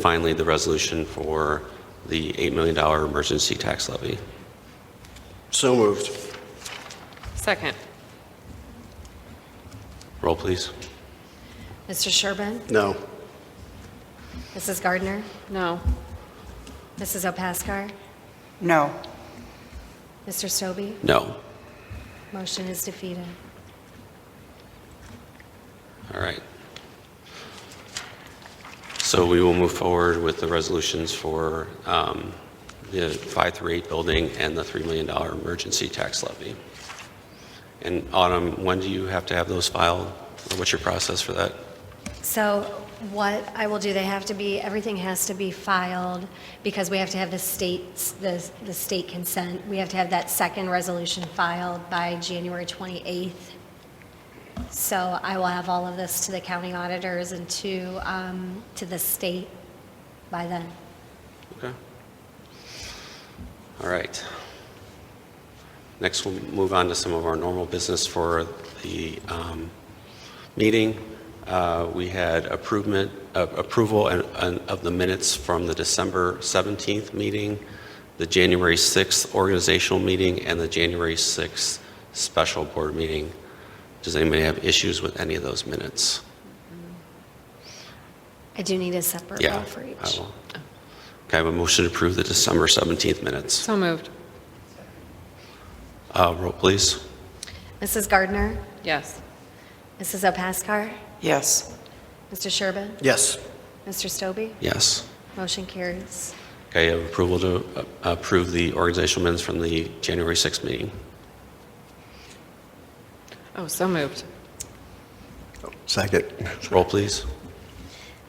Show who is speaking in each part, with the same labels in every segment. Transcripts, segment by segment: Speaker 1: Finally, the resolution for the $8 million emergency tax levy.
Speaker 2: So moved.
Speaker 3: Second.
Speaker 1: Roll, please.
Speaker 4: Mr. Sherbin,
Speaker 2: No.
Speaker 4: Mrs. Gardner,
Speaker 3: No.
Speaker 4: Mrs. Opaskar,
Speaker 5: No.
Speaker 4: Mr. Stobie,
Speaker 1: No.
Speaker 4: motion is defeated.
Speaker 1: All right. So we will move forward with the resolutions for um, the 538 building and the $3 million emergency tax levy. And Autumn, when do you have to have those filed? What's your process for that?
Speaker 4: So what I will do, they have to be, everything has to be filed because we have to have the state's, the, the state consent. We have to have that second resolution filed by January 28th. So I will have all of this to the county auditors and to, um, to the state by then.
Speaker 1: Okay. All right. Next, we'll move on to some of our normal business for the um, meeting. Uh, We had approvement, uh, approval and- and of the minutes from the December 17th meeting, the January 6th organizational meeting, and the January 6th special board meeting. Does anybody have issues with any of those minutes?
Speaker 4: I do need a separate
Speaker 1: Yeah.
Speaker 4: roll for each.
Speaker 1: I will. Okay, I have a motion to approve the December 17th minutes.
Speaker 3: So moved.
Speaker 1: Uh, Roll, please.
Speaker 4: Mrs. Gardner,
Speaker 3: Yes.
Speaker 4: Mrs. Opaskar,
Speaker 5: Yes.
Speaker 4: Mr. Sherbin,
Speaker 2: Yes.
Speaker 4: Mr. Stobie?
Speaker 1: Yes.
Speaker 4: Motion carries.
Speaker 1: Okay, I have approval to uh, approve the organizational minutes from the January 6th meeting.
Speaker 3: Oh, so moved.
Speaker 2: Second.
Speaker 1: Roll, please.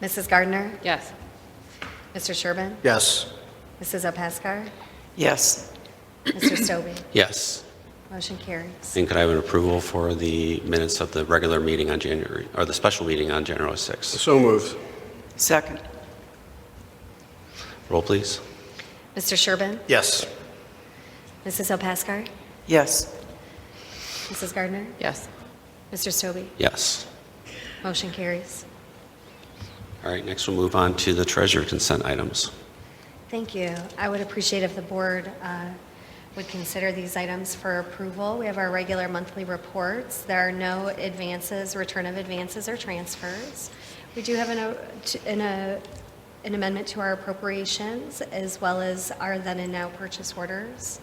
Speaker 4: Mrs. Gardner?
Speaker 3: Yes.
Speaker 4: Mr. Sherbin?
Speaker 2: Yes.
Speaker 4: Mrs. Opaskar?
Speaker 5: Yes.
Speaker 4: Mr. Stobie?
Speaker 1: Yes.
Speaker 4: Motion carries.
Speaker 1: And could I have an approval for the minutes of the regular meeting on January, or the special meeting on January 6th?
Speaker 2: So moved.
Speaker 5: Second.
Speaker 1: Roll, please.
Speaker 4: Mr. Sherbin?
Speaker 2: Yes.
Speaker 4: Mrs. Opaskar?
Speaker 5: Yes.
Speaker 4: Mrs. Gardner?
Speaker 3: Yes.
Speaker 4: Mr. Stobie?
Speaker 1: Yes.
Speaker 4: Motion carries.
Speaker 1: All right, next we'll move on to the treasurer consent items.
Speaker 4: Thank you. I would appreciate if the board uh, would consider these items for approval. We have our regular monthly reports. There are no advances, return of advances, or transfers. We do have an uh, t- an, uh, an amendment to our appropriations, as well as our then and now purchase orders.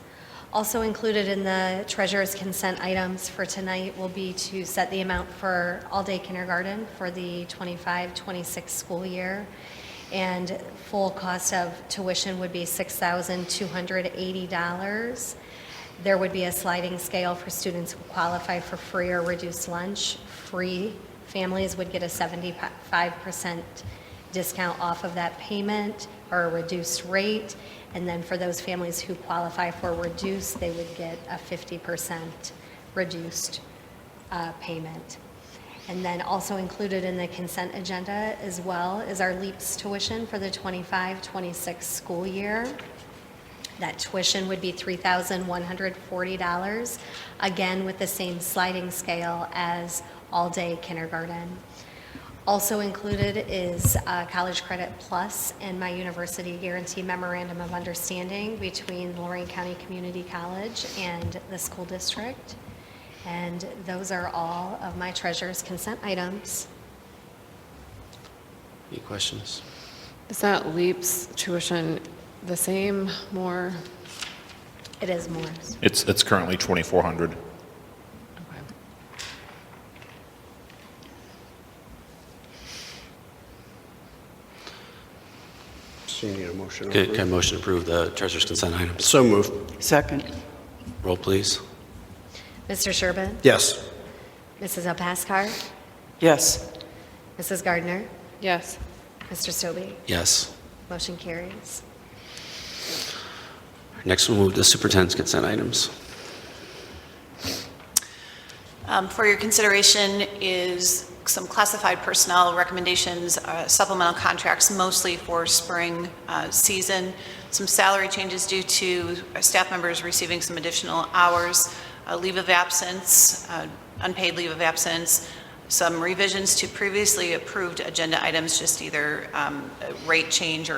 Speaker 4: Also included in the treasurer's consent items for tonight will be to set the amount for all-day kindergarten for the 25-26 school year, and full cost of tuition would be $6,280. There would be a sliding scale for students who qualify for free or reduced lunch. Free families would get a 75% discount off of that payment or a reduced rate. And then for those families who qualify for reduced, they would get a 50% reduced uh, payment. And then also included in the consent agenda as well is our LEAPS tuition for the 25-26 school year. That tuition would be $3,140, again with the same sliding scale as all-day kindergarten. Also included is uh, College Credit Plus and my university guarantee memorandum of understanding between Lorraine County Community College and the school district. And those are all of my treasurer's consent items.
Speaker 1: Any questions?
Speaker 3: Is that LEAP's tuition the same, more?
Speaker 4: It is more.
Speaker 6: It's, it's currently 2,400.
Speaker 3: Okay.
Speaker 2: So you need a motion. to
Speaker 1: Can can I
Speaker 2: approve.
Speaker 1: motion to approve the treasurer's consent items?
Speaker 2: So moved.
Speaker 5: Second.
Speaker 1: Roll, please.
Speaker 4: Mr. Sherbin?
Speaker 2: Yes.
Speaker 4: Mrs. Opaskar?
Speaker 5: Yes.
Speaker 4: Mrs. Gardner?
Speaker 3: Yes.
Speaker 4: Mr. Stobie?
Speaker 1: Yes.
Speaker 4: Motion carries.
Speaker 1: Next, we'll move to superintendent's consent items.
Speaker 7: Um, For your consideration is some classified personnel recommendations, uh, supplemental contracts mostly for spring uh, season, some salary changes due to uh, staff members receiving some additional hours, uh, leave of absence, uh, unpaid leave of absence, some revisions to previously approved agenda items, just either um, a rate change or